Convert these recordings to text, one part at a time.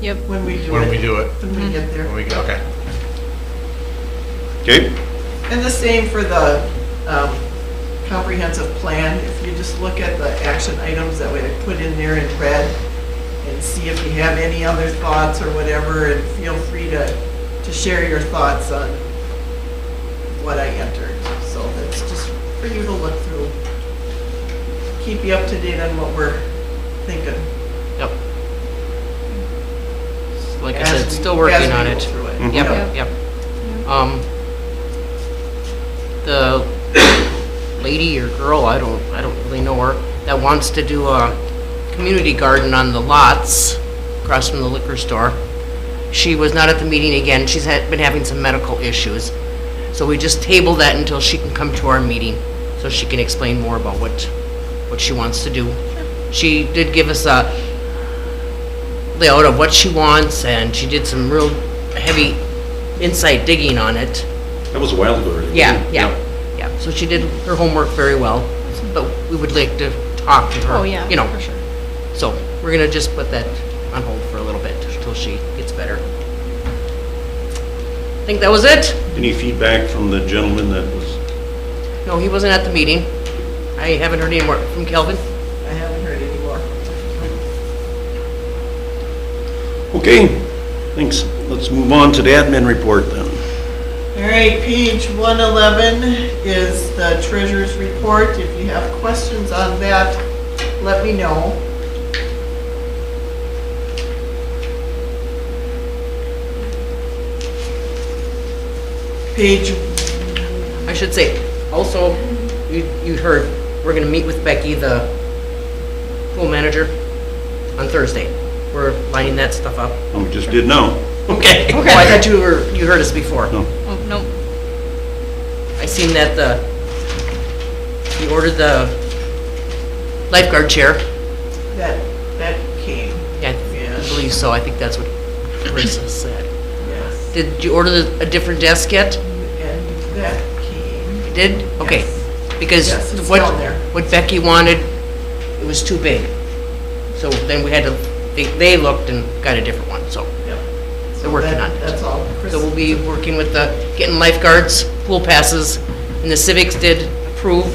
Yep. when we do it. When we do it, When we get there. when we, okay. Okay, And the same for the um, comprehensive plan. If you just look at the action items that we had put in there in red and see if you have any other thoughts or whatever, and feel free to, to share your thoughts on what I entered. So that's just for you to look through. Keep you up to date on what we're thinking. Yep. Like I as said, we- still as working we on go it. through Mhm. Yep, yep. Um, the lady or girl, I don't, I don't really know her, that wants to do a community garden on the lots across from the liquor store. She was not at the meeting again. She's had, been having some medical issues. So we just table that until she can come to our meeting, so she can explain more about what, what she wants to do. She did give us a, layout of what she wants, and she did some real heavy insight digging on it. that was a while ago. already. Yeah, yeah, yeah. So she did her homework very well, but we would like to talk to her. Oh, yeah, You know, for sure. so we're gonna just put that on hold for a little bit until she gets better. I think that was it. Any feedback from the gentleman that was, No, he wasn't at the meeting. I haven't heard any more from Kelvin. I haven't heard any more. okay, thanks. Let's move on to the admin report then. All right, page 111 is the treasurer's report. If you have questions on that, let me know. Page, I should say, also, you, you heard, we're gonna meet with Becky, the pool manager, on Thursday. We're lining that stuff up. Oh, we just did now. Okay. Well, I thought you were, you heard us before. No. Oh, nope. I seen that the, you ordered the lifeguard chair. that, that came, Yeah, I Yes. believe so. I think that's what Carissa said. yes, Did you order the- a different desk yet? and that came. You Did? Okay. Yes. Because Yes, it's what, down there. what Becky wanted, it was too big. So then we had to, they, they looked and got a different one, so. Yep. They're working That- on it. That's all. Chris- So we'll be working with the, getting lifeguards, pool passes, and the civics did approve,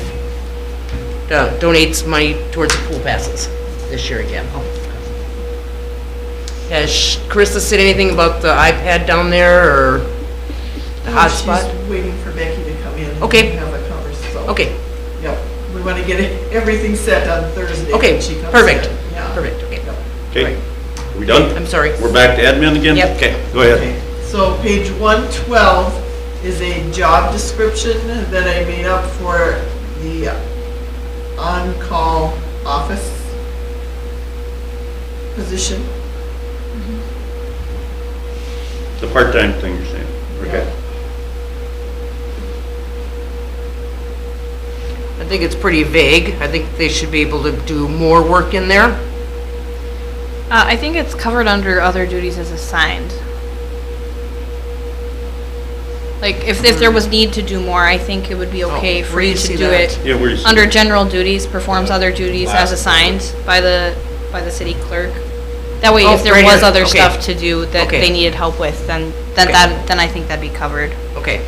uh, donates money towards the pool passes this year again. Has Carissa said anything about the iPad down there, or the Oh, hotspot? She's waiting for Becky to come in. and Okay. Have a conversation. so- Okay, Yep, we want to get everything set on Thursday. Okay, when she comes perfect, in. Yeah. perfect, okay. Yep. Okay, are we I'm done? sorry. We're back to admin again? Yep. Okay, go ahead. Okay, So page 112 is a job description that I made up for the on-call office position. The part-time thing you're saying. Okay. I think it's pretty vague. I think they should be able to do more work in there. Uh, I think it's covered under other duties as assigned. Like, if, if there was need to do more, I think it would be Mm-hmm. Oh, okay for where do you you to see do that? it. Yeah, where you see Under that? general duties, performs other duties as assigned by the, by the city clerk. That way, Oh, if there right was here, other okay. stuff to do that Okay. they needed help with, then, then Okay. that, then I think that'd be covered. Okay.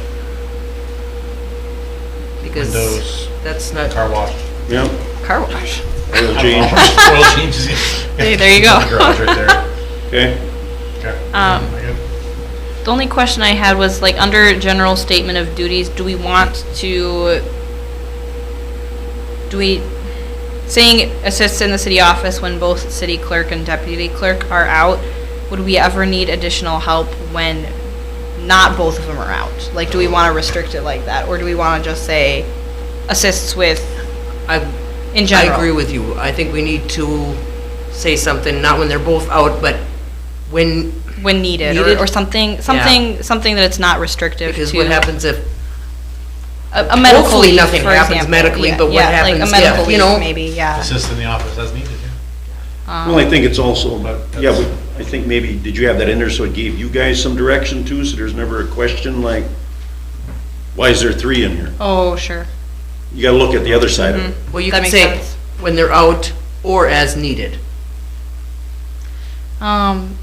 Because Windows, that's not car wash, Yeah, Car wash. oil change, oil changes. There- there you go. Garage right there. okay. Okay. Um, I got- The only question I had was like under general statement of duties, do we want to, do we, saying assists in the city office when both city clerk and deputy clerk are out, would we ever need additional help when not both of them are out? Like, do we want to restrict it like that, or do we want to just say assists with, I in I general? agree with you. I think we need to say something, not when they're both out, but when, When needed, Needed? or, or something, something, something that it's not restrictive to. because what happens if, A, a medical hopefully leave, nothing for happens example. medically, Yeah, but what yeah, like happens a medical if, leave, you know? Maybe, yeah. Um, Assist in the office as needed, yeah. Um, Well, I think it's also, yeah, we- I think maybe, did you have that in there so it gave you guys some direction too? So there's never a question like, why is there three in here? Oh, sure. You gotta look at the other side of it. Well, you That can makes say sense. when they're out or as needed. Um,